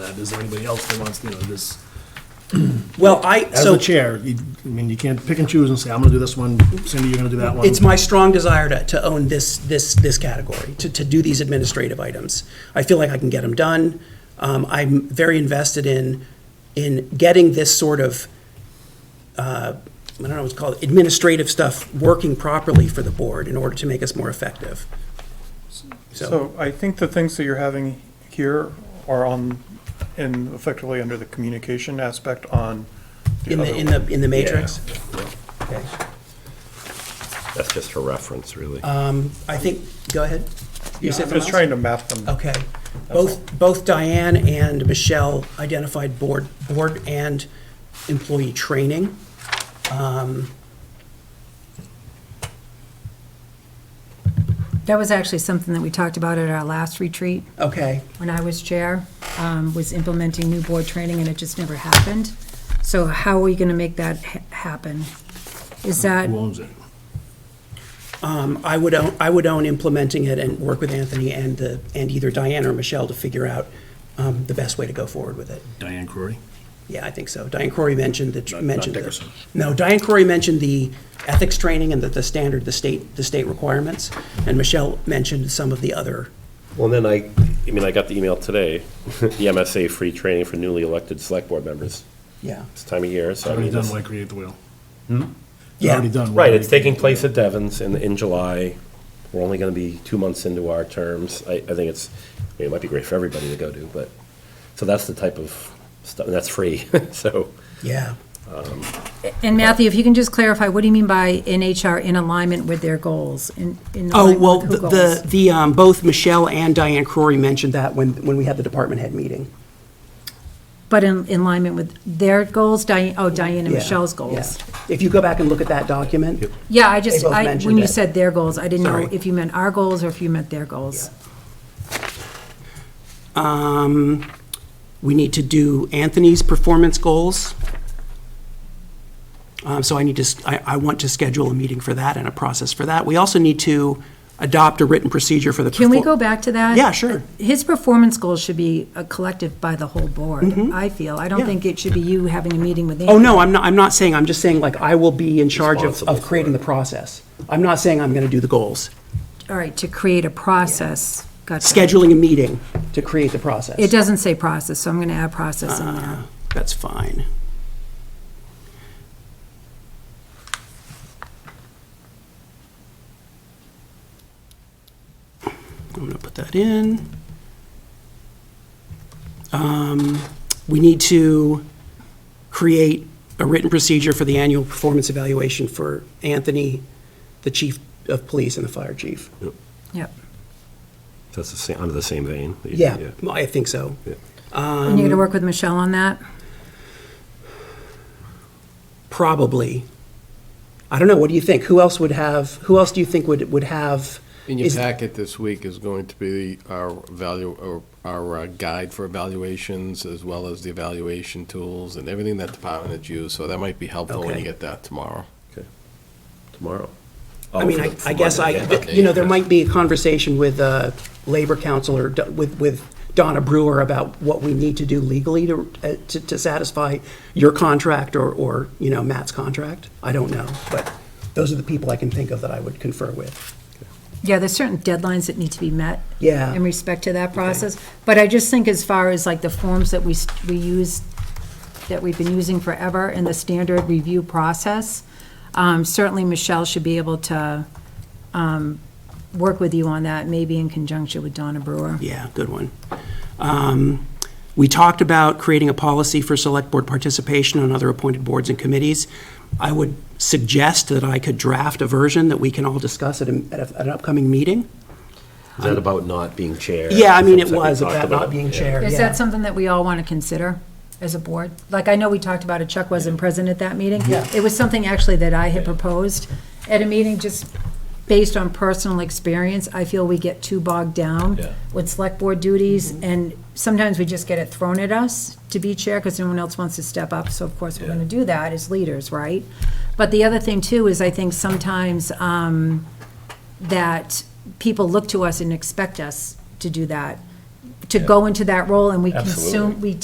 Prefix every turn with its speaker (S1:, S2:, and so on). S1: that. Is there anybody else that wants, you know, this?
S2: Well, I,
S1: As the
S2: so
S1: chair, you- I mean, you can't pick and choose and say, I'm gonna do this one, Cindy, you're gonna do that one.
S2: it's my strong desire to, to own this, this, this category, to, to do these administrative items. I feel like I can get them done. Um, I'm very invested in, in getting this sort of, uh, I don't know what it's called, administrative stuff working properly for the board in order to make us more effective.
S3: So I think the things that you're having here are on, in effectively under the communication aspect on the
S2: In
S3: other.
S2: the, in the, in the matrix? Okay.
S4: That's just for reference, really.
S2: I think, go ahead. You said something
S3: I'm
S2: else?
S3: just trying to map them.
S2: Okay. Both, both Diane and Michelle identified board, board and employee training. Um,
S5: That was actually something that we talked about at our last retreat,
S2: Okay,
S5: when I was chair, um, was implementing new board training, and it just never happened. So how are we gonna make that ha- happen? Is that,
S1: Who owns it?
S2: um, I would own, I would own implementing it and work with Anthony and the, and either Diane or Michelle to figure out um, the best way to go forward with it.
S1: Diane Crory?
S2: Yeah, I think so. Diane Corey mentioned that,
S1: not
S2: mentioned the.
S1: Dickerson.
S2: No, Diane Corey mentioned the ethics training and that the standard, the state, the state requirements. And Michelle mentioned some of the other,
S4: Well, then I, I mean, I got the email today, the MSA free training for newly elected select board members.
S2: yeah.
S4: It's time of year, so I
S1: Already
S4: mean,
S1: done,
S4: it's-
S1: why create the wheel?
S2: Yeah.
S1: Already done. why
S4: right, it's
S1: create-
S4: taking place at Devon's in, in July. We're only gonna be two months into our terms. I, I think it's, I mean, it might be great for everybody to go to, but, so that's the type of stuff, and that's free, so.
S2: Yeah.
S5: and Matthew, if you can just clarify, what do you mean by NHR in alignment with their goals? In- in
S2: Oh,
S5: alignment
S2: well,
S5: with who
S2: the- the,
S5: goals?
S2: the, um, both Michelle and Diane Crory mentioned that when, when we had the department head meeting.
S5: But in in alignment with their goals, Diane, oh, Diane and
S2: Yeah,
S5: Michelle's
S2: yeah.
S5: goals.
S2: If you go back and look at that document,
S5: Yeah, I just,
S2: both
S5: I,
S2: mentioned
S5: when you
S2: it.
S5: said their goals, I didn't know
S2: Sorry.
S5: if you meant our goals or if you meant their goals.
S2: um, we need to do Anthony's performance goals. Um, So I need to, s- I, I want to schedule a meeting for that and a process for that. We also need to adopt a written procedure for the.
S5: Can we
S2: perfor-
S5: go back to that?
S2: Yeah, sure.
S5: His performance goals should be a collective by the whole board, I feel.
S2: Mm-hmm. Yeah.
S5: I don't think it should be you having a meeting with Andy.
S2: Oh, no, I'm not, I'm not saying, I'm just saying like I will be in charge of,
S4: Responsible
S2: of
S4: for
S2: creating
S4: it.
S2: the process. I'm not saying I'm going to do the goals.
S5: All right, to create a process. Gotcha.
S2: Scheduling a meeting to create the process.
S5: It doesn't say process, so I'm going to add process in
S2: Uh,
S5: there.
S2: That's fine. I'm gonna put that in. Um, We need to create a written procedure for the annual performance evaluation for Anthony, the chief of police and the fire chief.
S5: Yep.
S4: That's the same, under the same vein.
S2: Yeah, I think so. um,
S5: And you're going to work with Michelle on that?
S2: Probably. I don't know, what do you think? Who else would have, who else do you think would, would have?
S6: In your
S2: is-
S6: packet this week is going to be our value, or our uh, guide for evaluations, as well as the evaluation tools and everything that department has used, so that might be helpful when
S2: Okay.
S6: you get that tomorrow.
S4: Tomorrow. Oh,
S2: I mean, I, I guess I, you know, there might be a conversation with, uh, Labor Council or Do- with, with Donna Brewer about what we need to do legally to, uh, to, to satisfy your contract or, or, you know, Matt's contract. I don't know, but those are the people I can think of that I would confer with.
S5: Yeah, there's certain deadlines that need to be met.
S2: Yeah.
S5: In respect to that process. But I just think as far as like the forms that we, s- we use, that we've been using forever and the standard review process, um, certainly Michelle should be able to um, work with you on that, maybe in conjunction with Donna Brewer.
S2: Yeah, good one. Um, We talked about creating a policy for select board participation on other appointed boards and committees. I would suggest that I could draft a version that we can all discuss at a- at a- at an upcoming meeting.
S4: Is that about not being chair?
S2: Yeah, I mean, it
S4: Something we
S2: was
S4: talked
S2: about not
S4: about.
S2: being
S4: Yeah.
S2: chair,
S5: Is
S2: yeah.
S5: that something that we all want to consider as a board? Like, I know we talked about it, Chuck wasn't present at that meeting.
S2: Yeah.
S5: It was something actually that I had proposed at a meeting, just based on personal experience. I feel we get too bogged down
S4: Yeah.
S5: with select board duties, and sometimes we just get it thrown at us to be chair because no one else wants to step up, so of course we're going to do that as leaders, right? But the other thing too is I think sometimes um, that people look to us and expect us to do that, to go into that role, and we consume,
S4: Absolutely.
S5: we